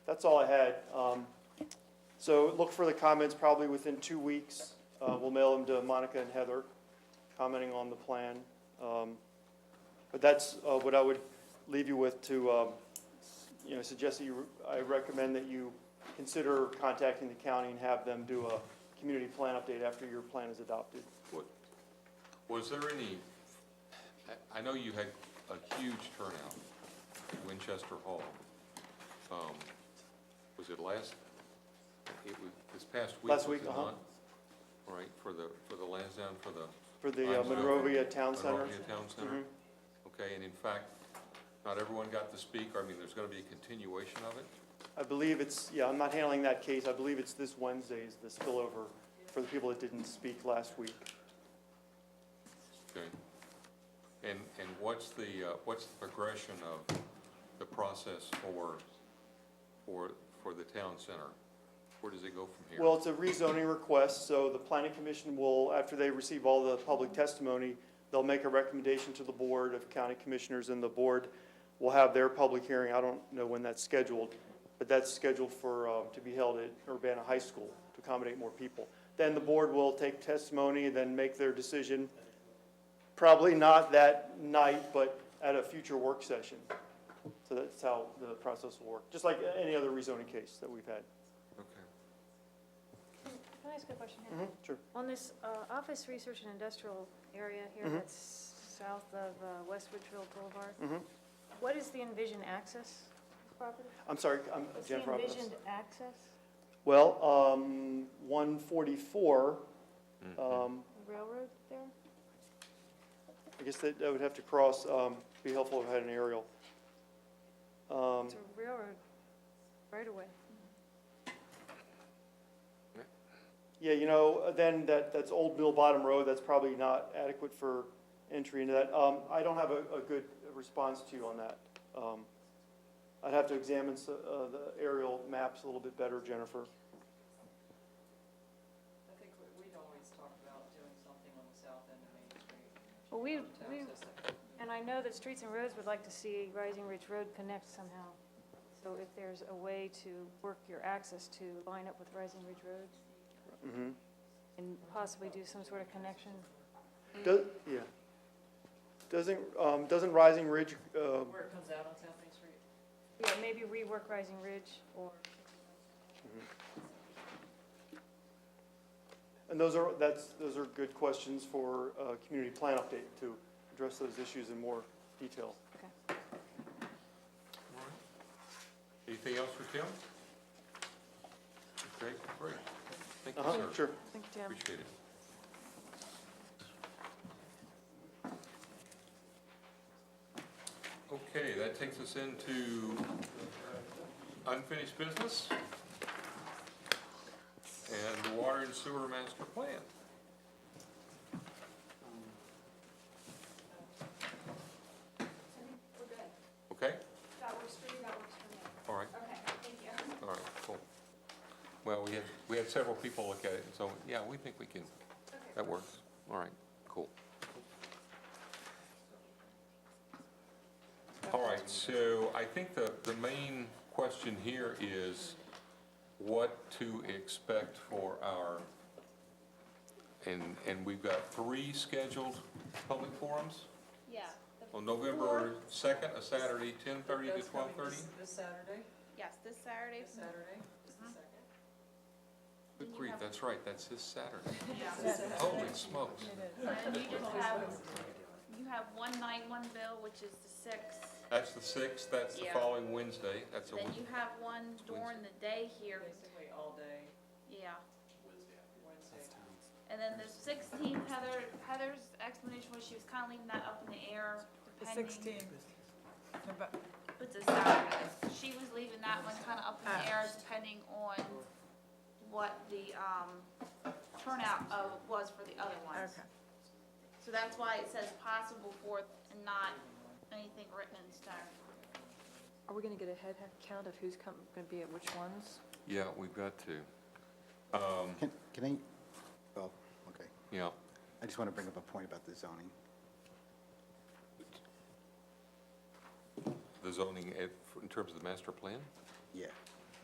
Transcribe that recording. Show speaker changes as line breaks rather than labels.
that's all I had. Um, So look for the comments probably within two weeks. Uh, We'll mail them to Monica and Heather, commenting on the plan. Um, But that's uh, what I would leave you with to, um, you know, suggest that you, I recommend that you consider contacting the county and have them do a community plan update after your plan is adopted.
Was there any, I, I know you had a huge turnout at Winchester Hall. Um, Was it last, it was this past week?
Last
was
week,
it
uh-huh.
not? Right, for the, for the Lansdowne, for the
For the uh,
I'm sorry.
Monrovia Town Center.
Monrovia Town Center?
Mhm.
Okay, and in fact, not everyone got to speak, I mean, there's gonna be a continuation of it?
I believe it's, yeah, I'm not handling that case. I believe it's this Wednesday is the spillover for the people that didn't speak last week.
Okay. And, and what's the, uh, what's the progression of the process for, for, for the town center? Where does it go from here?
Well, it's a rezoning request, so the planning commission will, after they receive all the public testimony, they'll make a recommendation to the board of county commissioners, and the board will have their public hearing. I don't know when that's scheduled, but that's scheduled for, uh, to be held at Urbana High School to accommodate more people. Then the board will take testimony, then make their decision, probably not that night, but at a future work session. So that's how the process will work, just like any other rezoning case that we've had.
Okay.
Can I ask a question? here?
Mhm, Sure.
On this uh, office research and industrial area here
Mhm.
that's south of uh, West Ridgefield Boulevard,
Mhm.
what is the envisioned access property?
I'm sorry, I'm
What's the
Jennifer. I'm-
envisioned access
Well, um, one forty-four,
Mhm.
um,
railroad there?
I guess that, that would have to cross, um, be helpful if I had an aerial. Um,
It's a railroad right away.
yeah, you know, then that, that's Old Mill Bottom Road, that's probably not adequate for entry into that. Um, I don't have a, a good response to you on that. Um, I'd have to examine, s- uh, the aerial maps a little bit better, Jennifer.
I think we- we'd always talk about doing something on the south end of Main Street.
Well, we,
um, to
we,
access it.
and I know that Streets and Roads would like to see Rising Ridge Road connect somehow. So if there's a way to work your access to line up with Rising Ridge Road
Mm-hmm.
Mm. and possibly do some sort of connection
Does, yeah. Doesn't, um, doesn't Rising Ridge, um,
Where it comes out on South Main Street?
Yeah, maybe rework Rising Ridge or,
And those are, that's, those are good questions for a community plan update to address those issues in more detail.
Mm-hmm. Anything else for Tim? Okay, great. Thank
Uh-huh,
you, sir.
sure.
think Jim.
Appreciate it. Okay, that takes us into unfinished business and the water and sewer master plan.
We're good.
Okay,
That works for you, that works for me.
all right.
Okay, thank you.
All right, cool. Well, we had, we had several people look at it, so, yeah, we think we can, that works. All right, cool. All right, so I think the, the main question here is what to expect for our, and, and we've got three scheduled public forums
Yeah,
on November second, a Saturday, ten thirty to
That's
twelve
coming
thirty?
this- This Saturday,
yes, this Saturday.
this Saturday, is the second.
Good grief, that's right, that's this Saturday.
Yeah.
Holy smokes.
And you just have, you have one nine one bill, which is the sixth.
That's the sixth, that's the
Yeah.
following Wednesday, that's a,
Then
week.
you have one during the day here,
Basically all day,
yeah.
Wednesday.
And then the sixteenth, Heather, Heather's explanation was she was kind of leaving that up in the air, depending. It's a Saturday. She was leaving that one kind of up in the air, depending on what the, um, turnout of, was for the other ones.
Okay.
So that's why it says possible fourth and not anything written in stone.
Are we gonna get a head count of who's come, gonna be at which ones?
yeah, we've got to. Um,
Can can I, oh, okay.
yeah,
I just want to bring up a point about the zoning.
the zoning, eh, in terms of the master plan?
Yeah.